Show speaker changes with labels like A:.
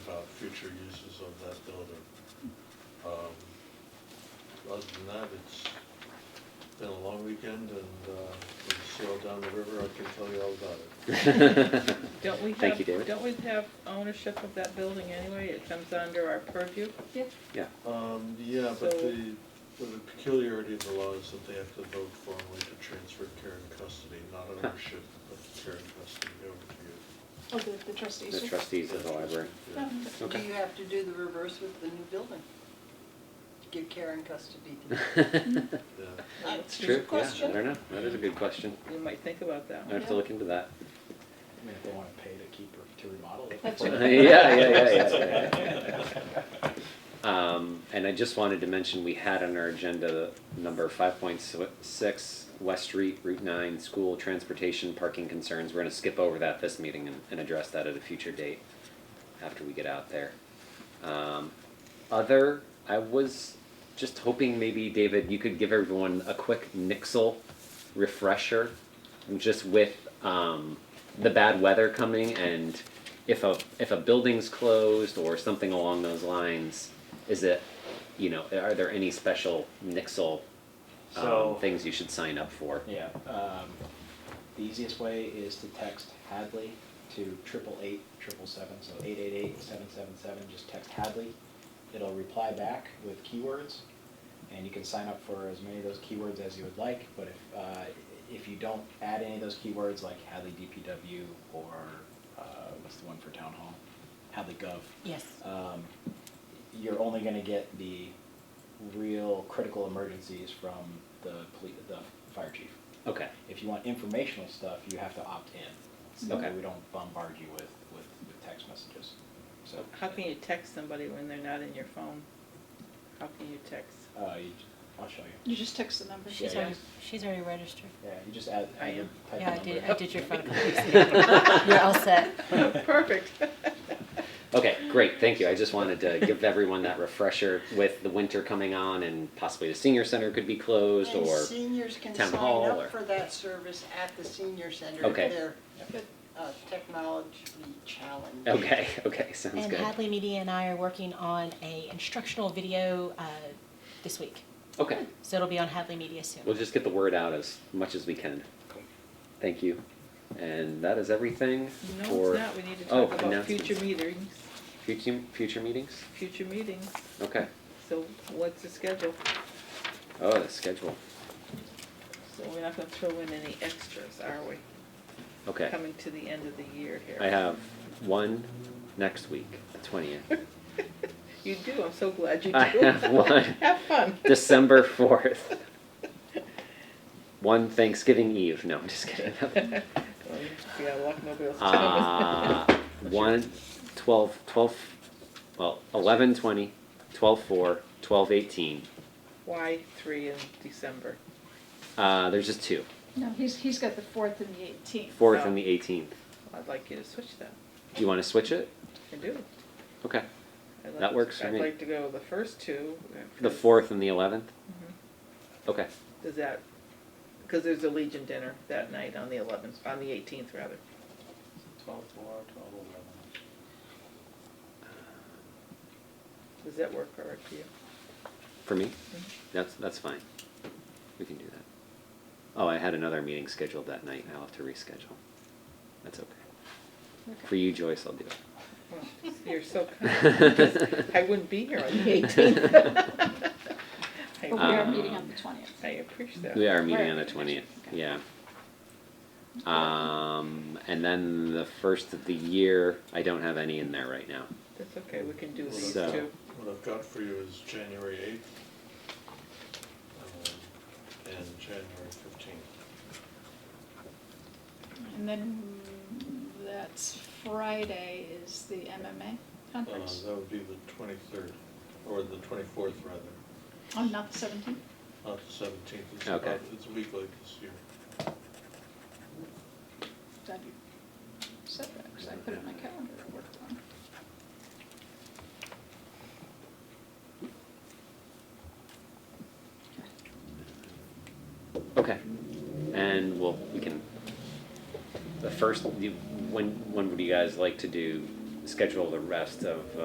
A: future uses of that building. Um, Other than that, it's been a long weekend and uh, we sailed down the river, I can tell you all about it.
B: Don't we
C: Thank you,
B: have,
C: David.
B: don't we have ownership of that building anyway? It comes under our purview?
C: Yeah,
A: Um, yeah, but
B: So-
A: the, the peculiarity of the law is that they have to vote formally to transfer care and custody, not ownership, but care and custody over to you.
D: Oh, the, the trustees.
C: the trustees of the library.
A: Yeah.
D: Um,
E: Do
C: Okay.
E: you have to do the reverse with the new building? Give care and custody to
A: Yeah.
C: It's
E: That's
C: true, yeah, I don't know, that is a good question.
B: You might think about that.
C: I have to look into that.
F: I mean, if they wanna pay to keep her, to remodel it.
D: That's
C: Yeah,
D: right.
C: yeah, yeah, yeah, yeah, yeah. Um, and I just wanted to mention, we had on our agenda number five point six, West Street, Route nine, school transportation, parking concerns. We're gonna skip over that this meeting and, and address that at a future date after we get out there. Um, other, I was just hoping maybe, David, you could give everyone a quick Nixle refresher, just with um, the bad weather coming and if a if a building's closed or something along those lines, is it, you know, are there any special Nixle um,
F: So-
C: things you should sign up for?
F: Yeah, um, the easiest way is to text Hadley to triple eight, triple seven, so eight eight eight, seven seven seven, just text Hadley. It'll reply back with keywords, and you can sign up for as many of those keywords as you would like, but if, uh, if you don't add any of those keywords, like Hadley DPW or, uh, what's the one for town hall? Hadley Gov,
E: Yes.
F: um, you're only going to get the real critical emergencies from the police, the fire chief.
C: Okay.
F: If you want informational stuff, you have to opt in. So
C: Okay.
F: we don't bombard you with, with, with text messages. So
B: How can you text somebody when they're not in your phone? How can you text?
F: uh, you, I'll show you.
D: You just text the number.
F: She's
G: She's
F: Yeah, yeah.
G: already,
F: already-
G: she's already registered.
F: Yeah, you just add.
B: I
F: add your
B: am.
F: type
G: Yeah, I
F: number.
G: did, I did your phone call. You're all set.
B: Perfect.
C: Okay, great, thank you. I just wanted to give everyone that refresher with the winter coming on and possibly the senior center could be closed
E: And
C: or
E: seniors can
C: town
E: sign
C: hall or-
E: up for that service at the senior center if
C: Okay.
E: they're
D: Good.
E: uh, technologically challenged.
C: Okay, okay, sounds
G: And
C: good.
G: Hadley Media and I are working on a instructional video uh, this week.
C: Okay,
G: So it'll be on Hadley Media soon.
C: we'll just get the word out as much as we can. Thank you. And that is everything
B: No,
C: for
B: it's not. We need to
C: oh,
B: talk about
C: announcements.
B: future meetings,
C: future, future meetings?
B: future meetings.
C: Okay.
B: So what's the schedule?
C: Oh, the schedule.
B: So we're not gonna throw in any extras, are we?
C: Okay.
B: Coming to the end of the year here.
C: I have one next week, the 20th.
B: You do. I'm so glad you do.
C: I have one.
B: Have fun.
C: December 4th. One Thanksgiving Eve. No, I'm just kidding.
B: Well, you got luck, nobody else
C: Uh, one, 12, 12, well, 11, 20, 12, 4, 12, 18.
B: Why three in December?
C: Uh, there's just two.
D: No, he's, he's got the fourth and the eighteenth.
C: 4th
B: Oh.
C: and the 18th.
B: I'd like you to switch that.
C: Do you want to switch it?
B: I do.
C: Okay.
B: I'd
C: That
B: like-
C: works for me.
B: I'd like to go the first two. uh,
C: The
B: because-
C: 4th and the 11th?
B: Mhm.
C: Okay.
B: Does that, because there's a Legion dinner that night on the eleventh, on the eighteenth rather.
F: Twelve four, twelve eleven.
B: Does that work all right for you?
C: For me?
B: Mhm.
C: That's, that's fine. We can do that. Oh, I had another meeting scheduled that night. I'll have to reschedule. That's okay. For you, Joyce, I'll do it.
B: Well, Oh, You're so kind, because I wouldn't be here on the eighteenth.
D: But we are
C: Um,
D: meeting on the twentieth.
B: I appreciate
C: We
B: that.
C: are meeting
D: Right.
C: on the twentieth,
D: Okay.
C: yeah. Um, and then the first of the year, I don't have any in there right now.
B: That's okay, we can do these
C: So-
B: two.
A: What I've got for you is January eighth and January fifteenth.
D: And then mm, that's Friday is the MMA conference.
A: Uh, That would be the twenty-third, or the twenty-fourth rather,
D: Oh, not the seventeenth?
A: not the seventeenth. It's
C: Okay.
A: about- It's a week late this year.
D: That'd be set that, 'cause I put it on my calendar to work on.
C: Okay. And we'll, we can, the first, you- when, when would you guys like to do, schedule the rest of, uh,